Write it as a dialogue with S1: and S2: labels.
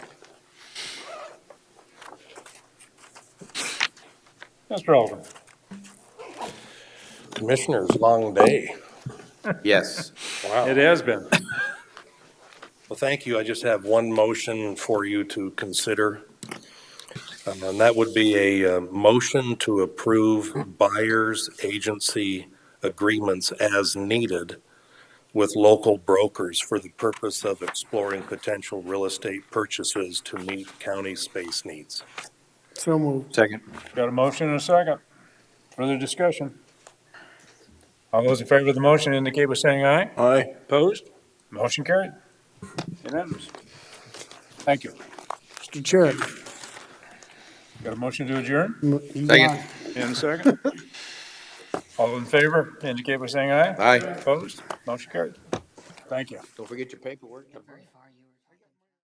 S1: Mr. Alderman.
S2: Commissioners, long day.
S3: Yes.
S2: Wow.
S1: It has been.
S2: Well, thank you. I just have one motion for you to consider. Um, And that would be a uh, motion to approve buyers agency agreements as needed with local brokers for the purpose of exploring potential real estate purchases to meet county space needs.
S4: So moved.
S3: Second.
S1: Got a motion and a second. Further discussion? All those in favor of the motion indicate by saying aye.
S3: Aye.
S1: Opposed? Motion carried. Unanimous. Thank you.
S4: Mr. Chair.
S1: Got a motion to adjourn
S4: you
S3: Second.
S4: got it.
S1: in a second. All in favor indicate by saying aye.
S3: Aye.
S1: Opposed? Motion carried. Thank you.
S3: Don't forget your paperwork.